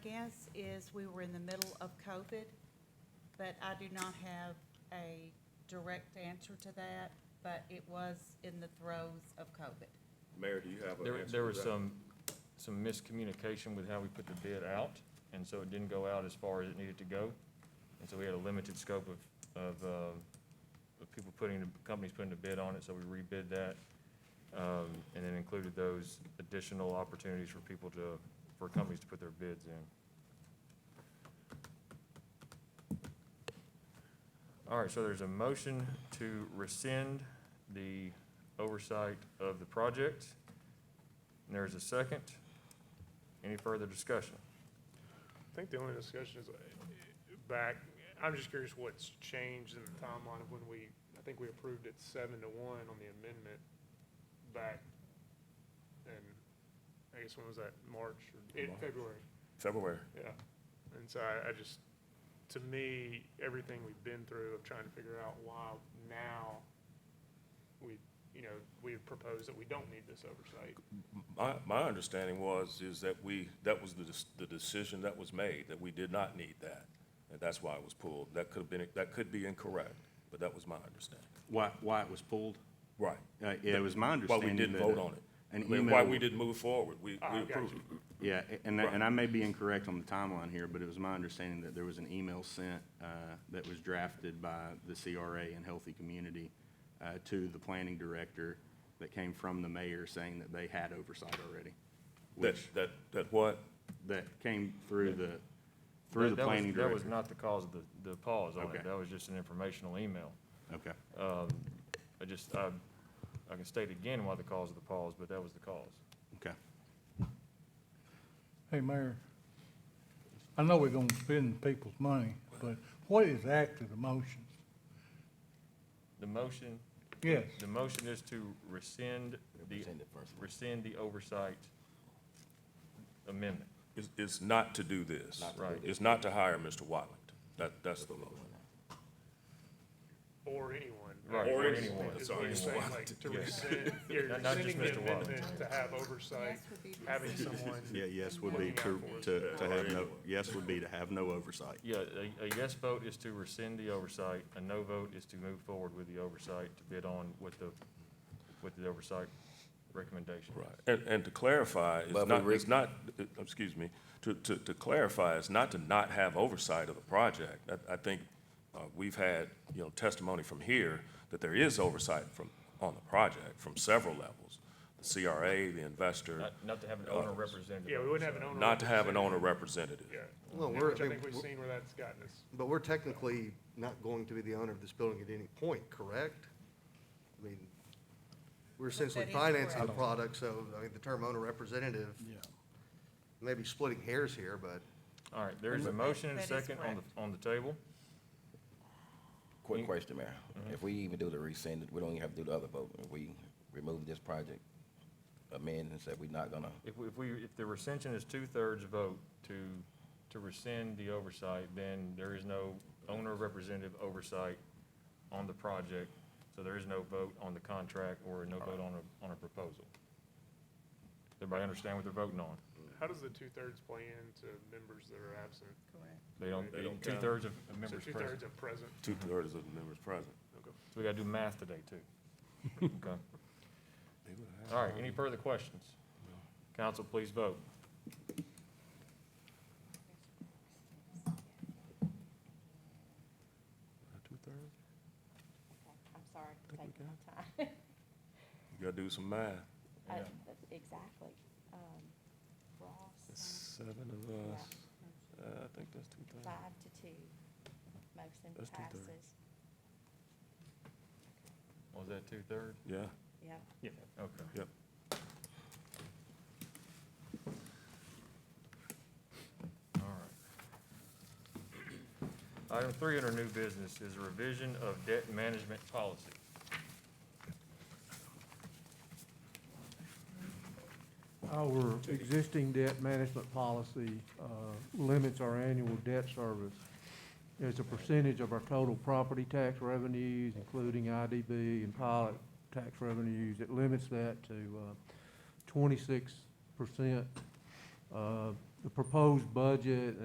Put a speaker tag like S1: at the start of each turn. S1: has is we were in the middle of COVID, but I do not have a direct answer to that, but it was in the throes of COVID.
S2: Mayor, do you have an answer
S3: There,
S2: to
S3: there was
S2: that?
S3: some, some miscommunication with how we put the bid out, and so it didn't go out as far as it needed to go. And so we had a limited scope of, of, uh, of people putting, the companies putting the bid on it, so we rebid that. Um, and then included those additional opportunities for people to, for companies to put their bids in. All right, so there's a motion to rescind the oversight of the project. And There's a second. Any further discussion?
S4: I think the only discussion is uh, back, I'm just curious what's changed in the timeline of when we, I think we approved it seven to one on the amendment back and I guess when was that, March or in
S2: March.
S4: February?
S2: February.
S4: Yeah. And so I, I just, to me, everything we've been through of trying to figure out why now we, you know, we propose that we don't need this oversight.
S2: My, my understanding was, is that we, that was the, dis- the decision that was made, that we did not need that. And that's why it was pulled. That could have been, that could be incorrect, but that was my understanding.
S5: Why, why it was pulled?
S2: Right.
S5: Uh, yeah, it was my
S2: Why
S5: understanding
S2: we didn't
S5: that
S2: vote on it.
S5: An
S2: I mean, Why
S5: email-
S2: we didn't move forward. We,
S4: Ah,
S2: we
S4: gotcha.
S2: approved it.
S5: Yeah, a- and, I- and I may be incorrect on the timeline here, but it was my understanding that there was an email sent, uh, that was drafted by the CRA and Healthy Community, uh, to the planning director that came from the mayor saying that they had oversight already.
S2: That,
S5: Which,
S2: that, that what?
S5: that came through the, through
S3: That-
S5: the
S3: that was-
S5: planning
S3: That was
S5: director.
S3: not the cause of the, the pause on
S5: Okay.
S3: it. That was just an informational email.
S5: Okay,
S3: I just, I, I can state again why the cause of the pause, but that was the cause.
S5: okay.
S6: Hey, Mayor, I know we're gonna spend people's money, but what is actually the motion?
S3: The motion,
S6: Yes,
S3: the motion is to rescind the, rescind the oversight amendment.
S2: It's, it's not to do this.
S3: to do Right.
S2: It's not to hire Mr. Watlington. That, that's the motion.
S4: Or anyone.
S3: Right,
S2: Or
S3: or
S2: anyone,
S3: anyone.
S4: Is
S2: sorry,
S4: what you're saying,
S2: anyone.
S4: like, to rescind, you're
S3: Not- not just
S4: rescinding the
S3: Mr. Wallace.
S4: amendment to have oversight,
S1: Yes, would be
S4: having
S1: rescinded.
S4: someone.
S5: Yeah, yes would be
S4: to-
S5: to, to, to have no, yes would be to have no oversight.
S3: Yeah, a, a yes vote is to rescind the oversight, a no vote is to move forward with the oversight, to bid on with the, with the oversight recommendation.
S2: Right, and, and to clarify, it's not, it's not, uh, excuse me, to, to, to clarify, it's not to not have oversight of the project. I, I think, uh, we've had, you know, testimony from here that there is oversight from, on the project from several levels. The CRA, the investor,
S3: Not, not to have an owner representative.
S4: Yeah, we wouldn't have an owner.
S2: not to have an owner representative.
S4: Yeah.
S7: Well,
S4: Yeah,
S7: we're-
S4: Which I
S7: I
S4: think
S7: mean,
S4: we've seen where that's gotten us.
S7: But we're technically not going to be the owner of this building at any point, correct? I mean, we're essentially
S1: That is
S7: financing the
S1: correct.
S7: product, so, I mean, the term owner representative, maybe splitting hairs here, but
S3: All right, there is a motion and a
S1: That is
S3: second on the, on the table.
S8: Quick question, Mayor. If we even do the rescind, we don't even have to do the other vote. If we remove this project, amend and say we're not gonna,
S3: If, we- if we, if the rescension is two-thirds vote to, to rescind the oversight, then there is no owner representative oversight on the project, so there is no vote on the contract or no vote on a, on a proposal. Everybody understand what they're voting on?
S4: How does the two-thirds play into members that are absent?
S1: Correct.
S3: They don't,
S2: They don't count.
S3: two-thirds of
S4: So
S3: members present.
S4: two-thirds are present.
S2: Two-thirds of the members present.
S3: So we gotta do math today, too. Okay. All right, any further questions? Council, please vote.
S2: Two-thirds?
S9: I'm sorry for taking my time.
S2: You gotta do some math.
S9: I-
S3: Yeah.
S9: that's Exactly. Um, Ross,
S2: Seven of us, uh, I think that's two-thirds.
S9: five to two, motion
S2: That's two-thirds.
S9: passes.
S3: Was that two-thirds?
S2: Yeah.
S9: Yep.
S3: Yeah. Okay.
S2: Yep.
S3: All right. Item three under new business is revision of debt management policy.
S10: Our existing debt management policy uh, limits our annual debt service as a percentage of our total property tax revenues, including IDB and pilot tax revenues. uh, It limits that to twenty-six percent. the uh, proposed budget